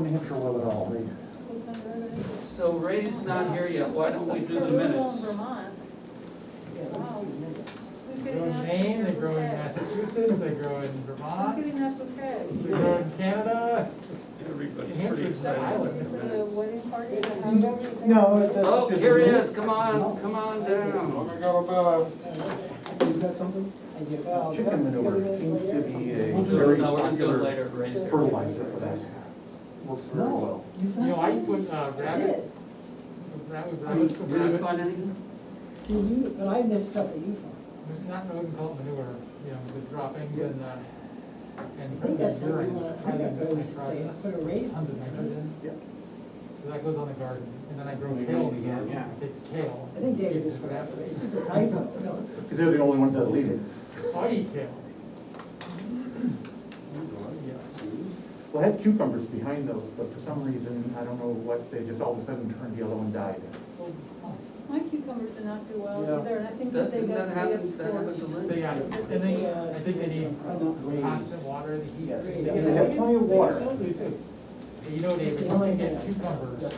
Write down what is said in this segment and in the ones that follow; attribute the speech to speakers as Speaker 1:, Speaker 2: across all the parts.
Speaker 1: New Hampshire will at all, they,
Speaker 2: So Ray's not here yet, why don't we do the minutes?
Speaker 3: They grow in Maine, they grow in Massachusetts, they grow in Vermont,
Speaker 4: Getting that bouquet.
Speaker 3: they grow in Canada.
Speaker 2: Everybody's pretty excited about the
Speaker 4: Is it a
Speaker 2: minutes.
Speaker 4: wedding party?
Speaker 1: no, that's just.
Speaker 2: Oh, here he is, come on, come on down.
Speaker 1: You've got something? Chicken manure seems to be a
Speaker 2: We'll do it,
Speaker 1: very
Speaker 2: no, we're gonna do it
Speaker 1: popular
Speaker 2: later, Ray's here.
Speaker 1: fertilizer for that. Works very well.
Speaker 3: You know, I put uh, rabbit, rabbit, rabbit,
Speaker 2: You didn't
Speaker 3: rabbit,
Speaker 2: find anything?
Speaker 5: See, you, but I missed stuff that you found.
Speaker 3: it's not known called manure, you know, the droppings and, uh,
Speaker 5: I
Speaker 3: and
Speaker 5: think that's what we
Speaker 3: urine.
Speaker 5: want, I think that's what we should say, put a raise.
Speaker 3: Tons of nitrogen.
Speaker 1: Yep.
Speaker 3: So that goes on the garden, and then I grow kale again, I take kale.
Speaker 5: I think David
Speaker 3: Give it
Speaker 5: just
Speaker 3: to
Speaker 5: forgot,
Speaker 3: rabbits.
Speaker 5: it's just a typo, no.
Speaker 1: Because they're the only ones that leave it.
Speaker 3: I eat kale. Yes.
Speaker 1: Well, I had cucumbers behind those, but for some reason, I don't know what, they just all of a sudden turned yellow and died.
Speaker 3: Oh,
Speaker 4: My cucumbers did not do
Speaker 1: Yeah.
Speaker 4: well either, and I think that they
Speaker 2: Doesn't
Speaker 4: got, they
Speaker 2: that happen,
Speaker 4: got
Speaker 2: that happens
Speaker 4: scorched.
Speaker 2: to
Speaker 3: They
Speaker 2: Lynn?
Speaker 3: got, and they, I think they need constant water, the heat.
Speaker 1: Yes.
Speaker 3: they
Speaker 1: They
Speaker 3: get-
Speaker 1: have plenty of water.
Speaker 3: They do too. But You know, David, once you get cucumbers,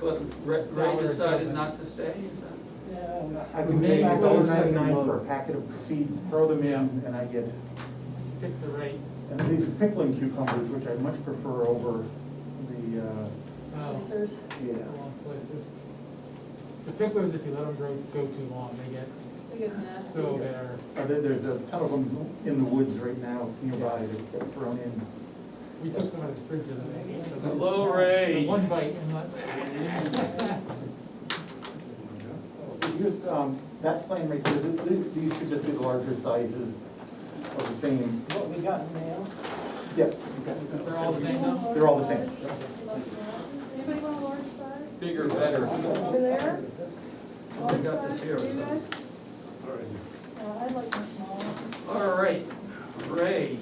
Speaker 2: But Ray- Ray decided not to stay, is that?
Speaker 5: Yeah.
Speaker 1: I can pay a dollar ninety-nine for a packet of seeds, throw them in, and I get,
Speaker 3: pick the right,
Speaker 1: and these are pickling cucumbers, which I much prefer over the, uh,
Speaker 6: Oh.
Speaker 3: um,
Speaker 4: Slicers.
Speaker 1: yeah.
Speaker 3: long slices. The picklers, if you let them grow, go too long, they get
Speaker 4: They get nasty.
Speaker 3: so they're,
Speaker 1: Uh, there- There's a ton of them in the woods right now nearby that get thrown in.
Speaker 3: we took some out of the fridge the other day. so they-
Speaker 2: Hello, Ray.
Speaker 3: the One bite and let.
Speaker 1: Here's, um, that plan right there, th- th- these should just be the larger sizes of the same,
Speaker 5: What we got in mail.
Speaker 1: yeah,
Speaker 3: They're all the same now?
Speaker 1: They're all the same.
Speaker 4: Anybody want a large size?
Speaker 6: Bigger, better.
Speaker 4: Over there? Large
Speaker 2: got this
Speaker 4: size,
Speaker 2: here.
Speaker 4: you guys? Uh, I'd like a small one.
Speaker 2: All right, Ray,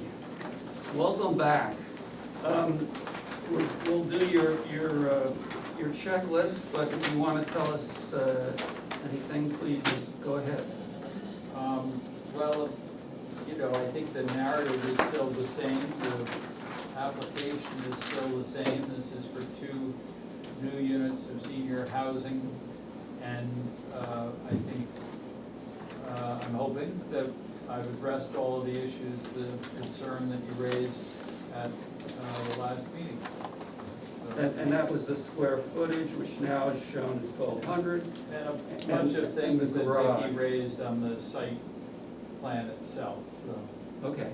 Speaker 2: welcome back. Um, we- We'll do your, your, uh, your checklist, but if you want to tell us uh, anything, please just go ahead.
Speaker 6: Um, well, you know, I think the narrative is still the same, the application is still the same. This is for two new units of senior housing. And, uh, I think, uh, I'm hoping that I've addressed all of the issues, the concern that you raised at, uh, the last meeting. So-
Speaker 2: And and that was the square footage, which now is shown as twelve hundred.
Speaker 6: And a bunch of things that Vicky raised on the site plan itself, so,
Speaker 2: Okay,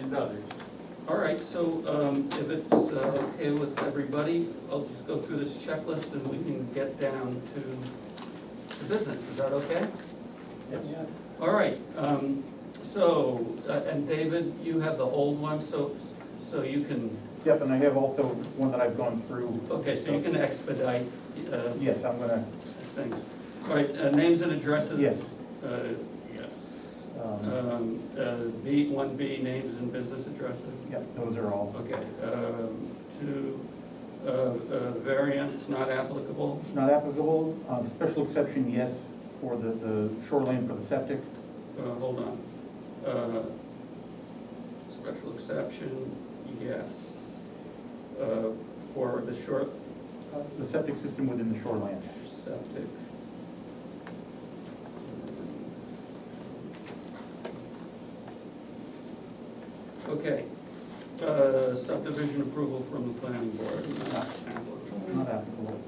Speaker 6: and others.
Speaker 2: all right, so um, if it's uh, okay with everybody, I'll just go through this checklist and we can get down to the business. Is that okay?
Speaker 5: Yeah.
Speaker 2: All right, um, so, uh, and David, you have the old one, so, so you can,
Speaker 1: Yep, and I have also one that I've gone through.
Speaker 2: okay, so you can expedite, uh,
Speaker 1: Yes, I'm gonna,
Speaker 2: things. All right, uh, names and addresses?
Speaker 1: yes.
Speaker 2: Uh, yes.
Speaker 1: um,
Speaker 2: Um, uh, B, one B, names and business addresses?
Speaker 1: Yep, those are all
Speaker 2: Okay, um, two, uh, uh, variance not applicable,
Speaker 1: not applicable. Um, Special exception, yes, for the the shoreline for the septic.
Speaker 2: uh, hold on. Uh, Special exception, yes. Uh, for the short,
Speaker 1: The septic system within the shoreline.
Speaker 2: septic. Okay, uh, subdivision approval from the planning board, not applicable.
Speaker 1: Not applicable.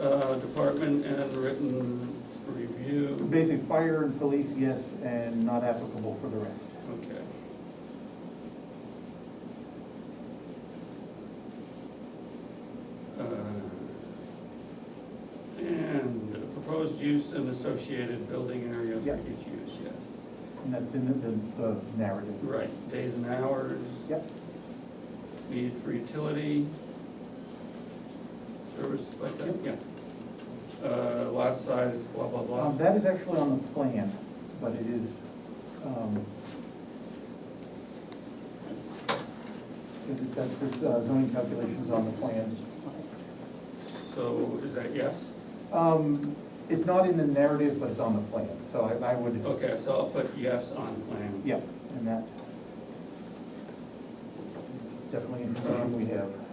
Speaker 2: Uh, department and written review,
Speaker 1: Basically, fire and police, yes, and not applicable for the rest.
Speaker 2: okay. Uh, And proposed use and associated building area for
Speaker 1: Yeah.
Speaker 2: each use, yes.
Speaker 1: And that's in the- the the narrative.
Speaker 2: Right, days and hours,
Speaker 1: Yep,
Speaker 2: need for utility, service like that, yeah. Uh, lot size, blah, blah, blah.
Speaker 1: um, that is actually on the plan, but it is, um, it- it- that's just uh, zoning calculations on the plan.
Speaker 2: So is that yes?
Speaker 1: Um, it's not in the narrative, but it's on the plan, so I, I would,
Speaker 2: Okay, so I'll put yes on plan.
Speaker 1: yeah, and that. It's definitely information we have.